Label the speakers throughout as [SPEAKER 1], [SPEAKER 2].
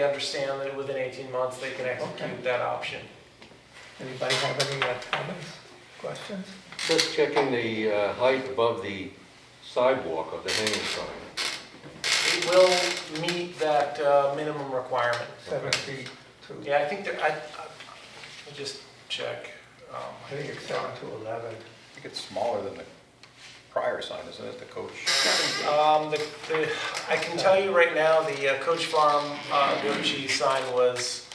[SPEAKER 1] They understand that within 18 months, they can execute that option.
[SPEAKER 2] Anybody have any uh, comments, questions?
[SPEAKER 3] Just checking the uh, height above the sidewalk of the hanging sign.
[SPEAKER 1] It will meet that uh, minimum requirement.
[SPEAKER 2] Seven feet to,
[SPEAKER 1] Yeah, I think that, I, I'll just check. Um,
[SPEAKER 2] I think it's seven to 11.
[SPEAKER 4] I think it's smaller than the prior sign, isn't it, the coach?
[SPEAKER 1] Um, the, the, I can tell you right now, the uh, Coach Farm, uh, Gucci sign was,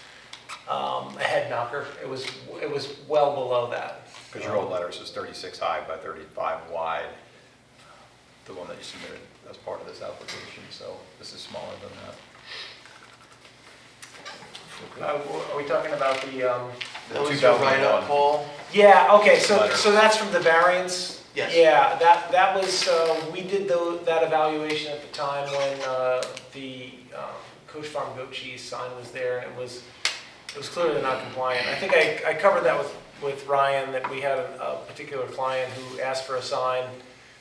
[SPEAKER 1] um, a head knocker. It was, it was well below that.
[SPEAKER 4] Because your old letter says 36 high by 35 wide, the one that you submitted as part of this application, so this is smaller than that.
[SPEAKER 1] Uh, are we talking about the, um,
[SPEAKER 5] Those are right up,
[SPEAKER 4] 2001.
[SPEAKER 5] Paul.
[SPEAKER 1] Yeah, okay, so,
[SPEAKER 4] Letter.
[SPEAKER 1] so that's from the variance?
[SPEAKER 5] Yes.
[SPEAKER 1] Yeah, that, that was, uh, we did tho- that evaluation at the time when uh, the um, Coach Farm Goat Cheese sign was there, and it was, it was clearly not compliant. I think I, I covered that with, with Ryan, that we had a a particular client who asked for a sign,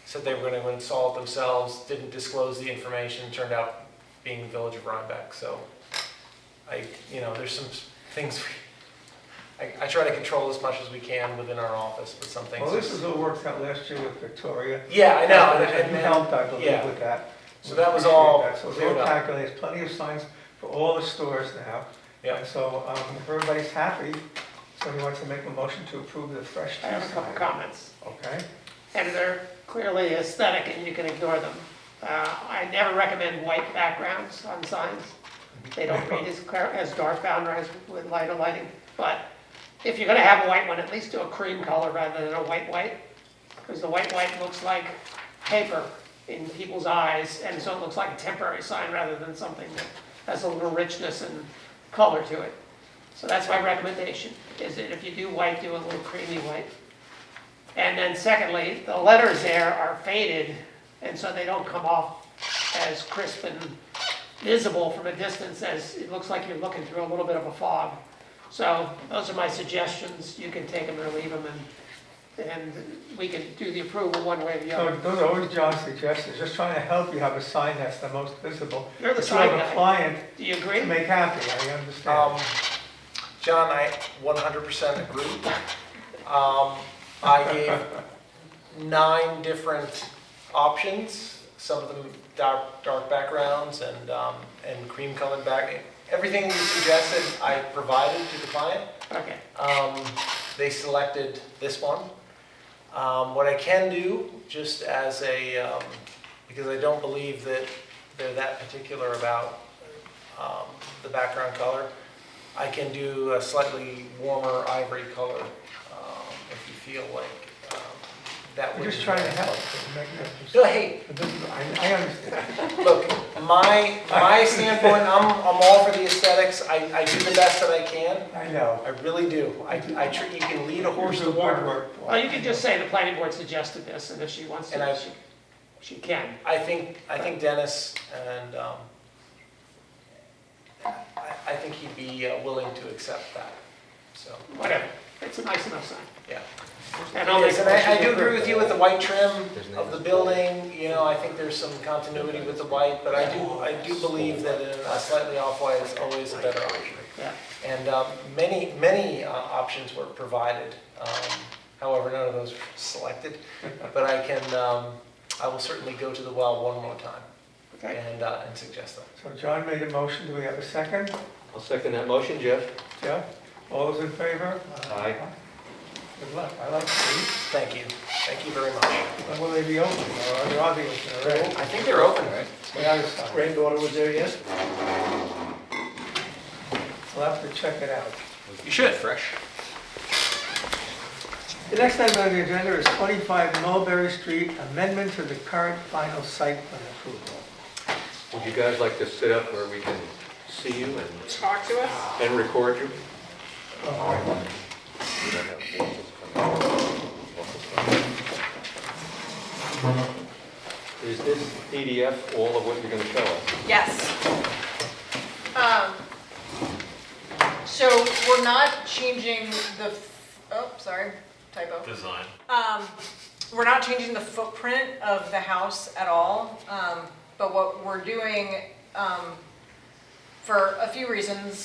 [SPEAKER 1] said they were gonna install it themselves, didn't disclose the information, turned out being the Village of Rhinebeck, so I, you know, there's some s- things we I, I try to control as much as we can within our office, but some things.
[SPEAKER 2] Well, this is what worked out last year with Victoria.
[SPEAKER 1] Yeah, I know, and- and
[SPEAKER 2] You
[SPEAKER 1] then-
[SPEAKER 2] helped, I believe,
[SPEAKER 1] yeah.
[SPEAKER 2] with that.
[SPEAKER 1] So that was
[SPEAKER 2] We appreciate
[SPEAKER 1] all
[SPEAKER 2] that. So
[SPEAKER 1] cleared
[SPEAKER 2] they're
[SPEAKER 1] up.
[SPEAKER 2] calculating, there's plenty of signs for all the stores now.
[SPEAKER 1] Yeah.
[SPEAKER 2] And so um, if everybody's happy, somebody wants to make a motion to approve the fresh
[SPEAKER 6] I
[SPEAKER 2] tea
[SPEAKER 6] have a couple
[SPEAKER 2] sign.
[SPEAKER 6] comments,
[SPEAKER 2] Okay?
[SPEAKER 6] and they're clearly aesthetic and you can ignore them. Uh, I never recommend white backgrounds on signs. They don't read as clear, as dark boundaries with lighter lighting. But if you're gonna have a white one, at least do a cream color rather than a white white. Because the white white looks like paper in people's eyes, and so it looks like a temporary sign rather than something that has a little richness and color to it. So that's my recommendation, is that if you do white, do a little creamy white. And then secondly, the letters there are faded, and so they don't come off as crisp and visible from a distance as, it looks like you're looking through a little bit of a fog. So those are my suggestions, you can take them or leave them, and, and we can do the approval one way or the
[SPEAKER 2] So
[SPEAKER 6] other.
[SPEAKER 2] those are always John's suggestions, just trying to help you have a sign that's the most visible.
[SPEAKER 6] You're the
[SPEAKER 2] that
[SPEAKER 6] sign
[SPEAKER 2] You have a
[SPEAKER 6] guy.
[SPEAKER 2] client
[SPEAKER 6] Do you agree?
[SPEAKER 2] to make happy, I understand.
[SPEAKER 1] Um, John, I 100% agree. Um, I gave nine different options, some of them dark, dark backgrounds and, um, and cream colored back. Everything you suggested, I provided to the client.
[SPEAKER 6] Okay,
[SPEAKER 1] Um, they selected this one. Um, what I can do, just as a, um, because I don't believe that they're that particular about, um, the background color, I can do a slightly warmer ivory color, um, if you feel like, um, that would.
[SPEAKER 2] We're just
[SPEAKER 1] be
[SPEAKER 2] trying to
[SPEAKER 1] nice.
[SPEAKER 2] help. to make it-
[SPEAKER 1] No, hey,
[SPEAKER 2] I I understand.
[SPEAKER 1] Look, my, my standpoint, I'm, I'm all for the aesthetics, I, I do the best that I can,
[SPEAKER 2] I know.
[SPEAKER 1] I really do. I, I, tr- you can lead a horse to
[SPEAKER 2] You're
[SPEAKER 1] water.
[SPEAKER 2] good work, Paul.
[SPEAKER 6] well, you can just say the planning board suggested this, and if she wants
[SPEAKER 1] And I-
[SPEAKER 6] to, she, she can.
[SPEAKER 1] I think, I think Dennis and, um, I, I think he'd be uh, willing to accept that, so,
[SPEAKER 6] whatever, it's a nice enough sign.
[SPEAKER 1] yeah.
[SPEAKER 6] And I'll make
[SPEAKER 1] Yes,
[SPEAKER 6] a
[SPEAKER 1] and I, I
[SPEAKER 6] motion
[SPEAKER 1] do
[SPEAKER 6] to
[SPEAKER 1] agree
[SPEAKER 6] approve.
[SPEAKER 1] with you with the white trim
[SPEAKER 3] His name
[SPEAKER 1] of the
[SPEAKER 3] is
[SPEAKER 1] building, you know, I think there's some continuity with the white, but I do, I do believe that in a slightly off-white is always a better option.
[SPEAKER 6] Yeah.
[SPEAKER 1] And, um, many, many, uh, options were provided, um, however, none of those were selected, but I can, um, I will certainly go to the well one more time.
[SPEAKER 6] Okay.
[SPEAKER 1] and, uh, and suggest them.
[SPEAKER 2] So John made a motion, do we have a second?
[SPEAKER 3] I'll second that motion, Jeff.
[SPEAKER 2] Jeff, all those in favor?
[SPEAKER 3] Aye.
[SPEAKER 2] Good luck, I like these.
[SPEAKER 1] Thank you, thank you very much.
[SPEAKER 2] When will they be open, or are they on the open already?
[SPEAKER 1] I think they're open, right?
[SPEAKER 2] The other side.
[SPEAKER 1] Granddaughter was there yesterday.
[SPEAKER 2] We'll have to check it out.
[SPEAKER 4] You should. Fresh.
[SPEAKER 2] The next item on the agenda is 25 Mulberry Street, amendment to the current final site plan approval.
[SPEAKER 3] Would you guys like to sit up where we can see you and,
[SPEAKER 6] Talk to us.
[SPEAKER 3] and record you?
[SPEAKER 2] Oh,
[SPEAKER 3] We don't have waffles coming. Waffles coming. Is this PDF all of what you're gonna show us?
[SPEAKER 7] Yes. Um, So we're not changing the, f- oh, sorry, typo. Design. We're not changing the footprint of the house at all, um, but what we're doing um, for a few reasons.